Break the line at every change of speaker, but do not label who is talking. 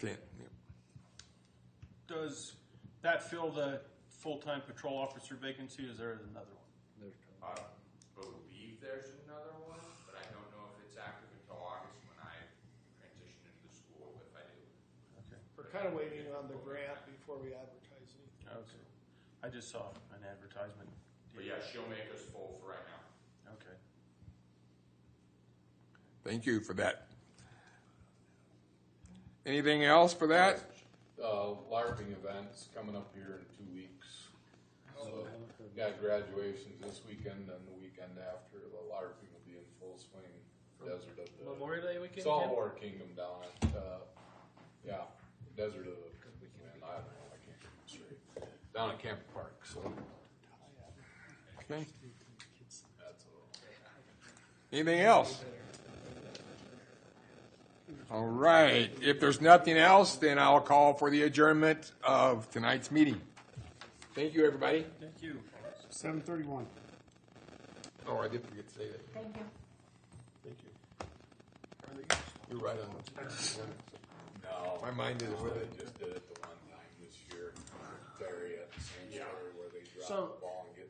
Can't, yeah.
Does that fill the full-time patrol officer vacancy? Is there another one?
I believe there's another one, but I don't know if it's active until August when I transition into the school, if I do.
Okay.
We're kind of waiting on the grant before we advertise anything.
Okay. I just saw an advertisement.
But yeah, she'll make us full for right now.
Okay.
Thank you for that. Anything else for that?
uh, LARPing event's coming up here in two weeks. So we've got graduations this weekend and the weekend after. The LARPing will be in full swing. Desert of the
Memorial Day weekend. Tim?
Saltwater Kingdom down at uh, yeah, Desert of the man, I don't know. I can't keep it straight. Down at Camp Park. So
Okay.
that's a
Anything else? All right, if there's nothing else, then I'll call for the adjournment of tonight's meeting. Thank you, everybody.
Thank you.
Seven thirty-one.
Oh, I did forget to say that.
Thank you.
You're right on.
no.
My mind is with it.
They just did it the one time this year, Barry at the sanctuary where they dropped
So-
the ball and get